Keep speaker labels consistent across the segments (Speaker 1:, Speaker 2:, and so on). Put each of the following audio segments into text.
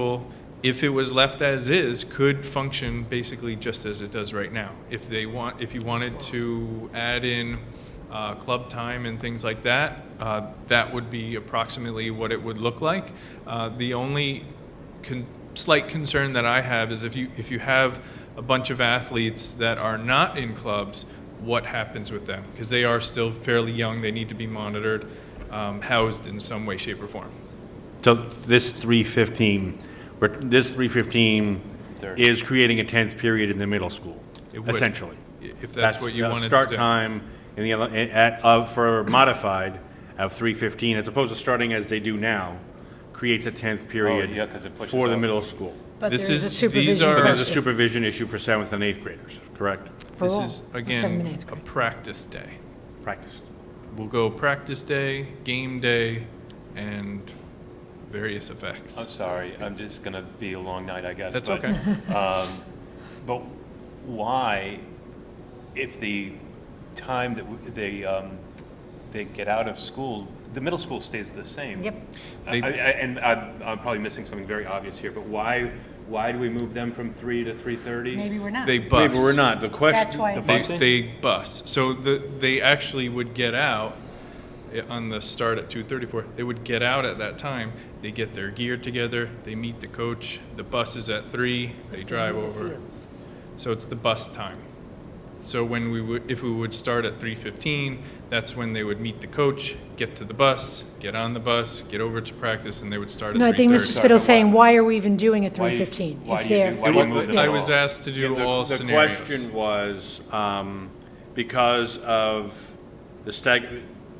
Speaker 1: Well, if it was left as is, could function basically just as it does right now. If they want, if you wanted to add in uh, club time and things like that, uh, that would be approximately what it would look like. Uh, The only con- slight concern that I have is if you, if you have a bunch of athletes that are not in clubs, what happens with them? Because they are still fairly young, they need to be monitored, um, housed in some way, shape, or form.
Speaker 2: So this 315, we're- this 315 is creating a 10th period in the middle school,
Speaker 1: It would.
Speaker 2: essentially.
Speaker 1: If that's what you
Speaker 2: the
Speaker 1: wanted to do.
Speaker 2: Start time in the, ele- at, of, for modified of 315, as opposed to starting as they do now, creates a 10th
Speaker 1: Oh,
Speaker 2: period
Speaker 3: yeah, 'cause it pushes
Speaker 2: for the
Speaker 3: out.
Speaker 2: middle school.
Speaker 4: But
Speaker 1: This
Speaker 4: there is a
Speaker 1: is- these
Speaker 4: supervision.
Speaker 1: are-
Speaker 2: But there's a
Speaker 4: question
Speaker 2: supervision issue for 7th and 8th graders, correct?
Speaker 4: for
Speaker 1: This
Speaker 4: all,
Speaker 1: is,
Speaker 4: for seventh and
Speaker 1: again,
Speaker 4: eighth
Speaker 1: a
Speaker 4: grade.
Speaker 1: practice day.
Speaker 2: Practice.
Speaker 1: We'll go practice day, game day, and various effects.
Speaker 3: I'm sorry, I'm just gonna be a long night, I guess.
Speaker 1: That's
Speaker 3: but,
Speaker 1: okay.
Speaker 3: um, But why, if the time that w- they, um, they get out of school, the middle school stays the same?
Speaker 4: Yep.
Speaker 3: I-
Speaker 1: They-
Speaker 3: I- And I'm, I'm probably missing something very obvious here, but why, why do we move them from three to three thirty?
Speaker 4: Maybe we're not.
Speaker 1: They
Speaker 2: Maybe
Speaker 1: bus.
Speaker 2: we're not, the question.
Speaker 4: That's why
Speaker 2: the
Speaker 4: it's-
Speaker 2: bu-
Speaker 1: They,
Speaker 3: Busing?
Speaker 1: they bus. So the, they actually would get out i- on the start at 2:34. They would get out at that time. They get their gear together. They meet the coach. The bus is at three. They drive over. So it's the bus time. So when we would, if we would start at three fifteen, that's when they would meet the coach, get to the bus, get on the bus, get over to practice, and they would start at
Speaker 4: No, I
Speaker 1: three
Speaker 4: think Mr.
Speaker 1: thirty.
Speaker 4: Spittle's saying, why are we even doing a
Speaker 3: Why-
Speaker 4: 315?
Speaker 3: why
Speaker 4: If
Speaker 3: do you
Speaker 4: they're-
Speaker 3: do- why do you move them at
Speaker 1: I
Speaker 3: all?
Speaker 1: was asked to do
Speaker 2: Yeah, the-
Speaker 1: all scenarios.
Speaker 2: The question was, um, because of the stag,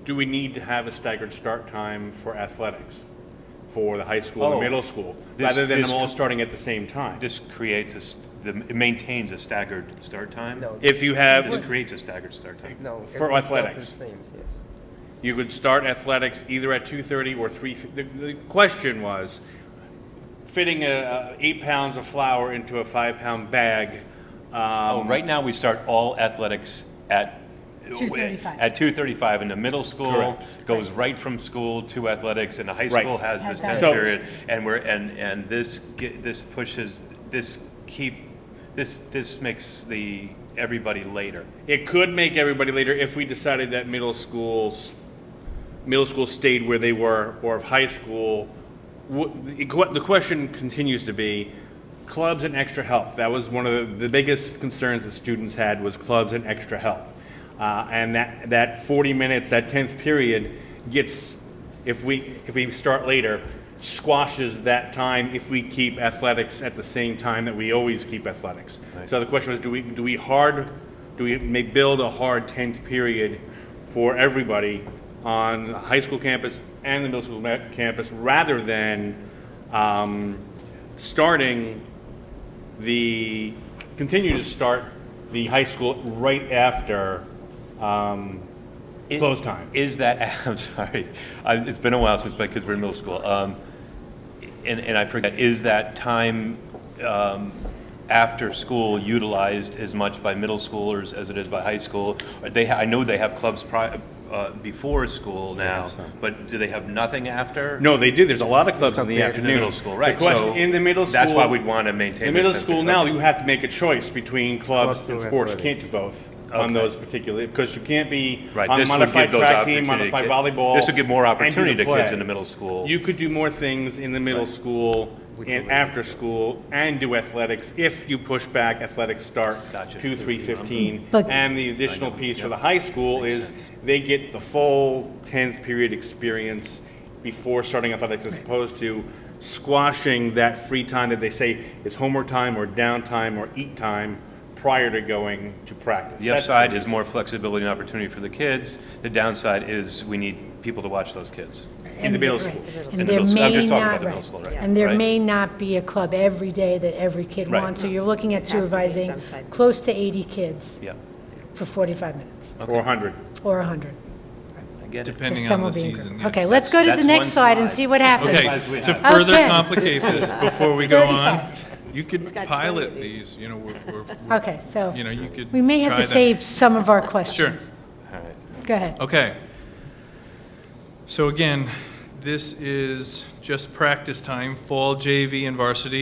Speaker 2: do we need to have a staggered start time for athletics? For the high school
Speaker 3: Oh.
Speaker 2: and middle school,
Speaker 3: This-
Speaker 2: rather than
Speaker 3: this
Speaker 2: them all
Speaker 3: c-
Speaker 2: starting at the same time?
Speaker 3: This creates a, s- the- it maintains a staggered start time?
Speaker 5: No.
Speaker 2: If you have,
Speaker 3: This creates a staggered start time?
Speaker 5: No.
Speaker 2: For
Speaker 5: everyone starts
Speaker 2: athletics.
Speaker 5: the same, yes.
Speaker 2: you could start athletics either at two thirty or three, f- the, the question was, fitting a, a eight pounds of flour into a five-pound bag,
Speaker 3: Oh,
Speaker 2: um,
Speaker 3: right now, we start all athletics at.
Speaker 4: 2:35.
Speaker 3: At two thirty-five, and the middle school
Speaker 2: Correct.
Speaker 3: goes right from school to athletics, and the high
Speaker 2: Right.
Speaker 3: school has this
Speaker 4: Has that.
Speaker 3: time
Speaker 2: So-
Speaker 3: period. And we're, and, and this, ge- this pushes, this keep, this, this makes the, everybody later.
Speaker 2: It could make everybody later if we decided that middle schools, middle school stayed where they were, or if high school. wh- The que- the question continues to be, clubs and extra help. That was one of the, the biggest concerns that students had was clubs and extra help. Uh, and that, that 40 minutes, that 10th period gets, if we, if we start later, squashes that time if we keep athletics at the same time that we always keep athletics. So the question was, do we, do we hard, do we make, build a hard 10th period for everybody on the high school campus and the middle school ma- campus rather than um, starting the, continue to start the high school right after um,
Speaker 3: It-
Speaker 2: close time?
Speaker 3: Is that, I'm sorry, I- it's been a while since my kids were in middle school. Um, And, and I forget, is that time um, after school utilized as much by middle schoolers as it is by high school? Or They, ha- I know they have clubs pri- uh, before school now, but do they have nothing after?
Speaker 2: No, they do. There's a lot of clubs in the
Speaker 3: In
Speaker 2: afternoon.
Speaker 3: the middle school, right.
Speaker 2: The question,
Speaker 3: so
Speaker 2: in the middle school.
Speaker 3: That's why we'd want to maintain.
Speaker 2: The middle
Speaker 3: this type of-
Speaker 2: school now,
Speaker 3: okay.
Speaker 2: you have to make a choice between clubs
Speaker 5: Clubs
Speaker 2: and
Speaker 5: or
Speaker 2: sports. You
Speaker 5: athletic.
Speaker 2: can't do both on
Speaker 3: Okay.
Speaker 2: those particular, because you can't be
Speaker 3: Right,
Speaker 2: on
Speaker 3: this would give
Speaker 2: modified
Speaker 3: those
Speaker 2: track team,
Speaker 3: opportunity-
Speaker 2: modified volleyball.
Speaker 3: This would give more
Speaker 2: and do the
Speaker 3: opportunity to kids
Speaker 2: play.
Speaker 3: in the middle school.
Speaker 2: You could do more things in the middle school and after school and do athletics if you push back athletics start
Speaker 3: Gotcha.
Speaker 2: two, three fifteen.
Speaker 4: But-
Speaker 2: And the additional piece for the high school is they get the full tenth period experience before starting athletics as opposed to squashing that free time that they say is homework time or downtime or eat time prior to going to practice.
Speaker 3: The
Speaker 2: That's
Speaker 3: upside is more flexibility and opportunity for the kids. The downside is we need people to watch those kids.
Speaker 2: In the middle school.
Speaker 3: In
Speaker 4: And
Speaker 3: the
Speaker 4: there
Speaker 3: middle school. I'm
Speaker 4: may
Speaker 3: just talking
Speaker 4: not,
Speaker 3: about the middle
Speaker 4: right.
Speaker 3: school, right?
Speaker 4: And there
Speaker 3: Right.
Speaker 4: may not be a club every day that every kid
Speaker 3: Right.
Speaker 4: wants. So you're looking at
Speaker 6: Have to be
Speaker 4: supervising
Speaker 6: some type.
Speaker 4: close to 80 kids
Speaker 3: Yeah,
Speaker 4: for 45 minutes,
Speaker 2: Or hundred.
Speaker 4: or 100.
Speaker 3: I get it.
Speaker 1: Depending
Speaker 4: Some
Speaker 1: on
Speaker 4: will
Speaker 1: the
Speaker 4: be in
Speaker 1: season.
Speaker 4: group.
Speaker 1: yeah.
Speaker 4: Okay, let's go to
Speaker 3: That's
Speaker 4: the next
Speaker 3: one
Speaker 4: slide and
Speaker 3: slide.
Speaker 4: see what happens.
Speaker 1: Okay, to further
Speaker 4: Okay.
Speaker 1: complicate this, before we go on,
Speaker 4: 35.
Speaker 1: you could
Speaker 6: got 20
Speaker 1: pilot
Speaker 6: of these.
Speaker 1: these, you know, we're, we're- we're-
Speaker 4: Okay, so
Speaker 1: you know, you could.
Speaker 4: we may have
Speaker 1: try
Speaker 4: to
Speaker 1: that.
Speaker 4: save some of our questions.
Speaker 3: All right.
Speaker 4: Go ahead.
Speaker 1: Okay. So again, this is just practice time, fall JV and varsity.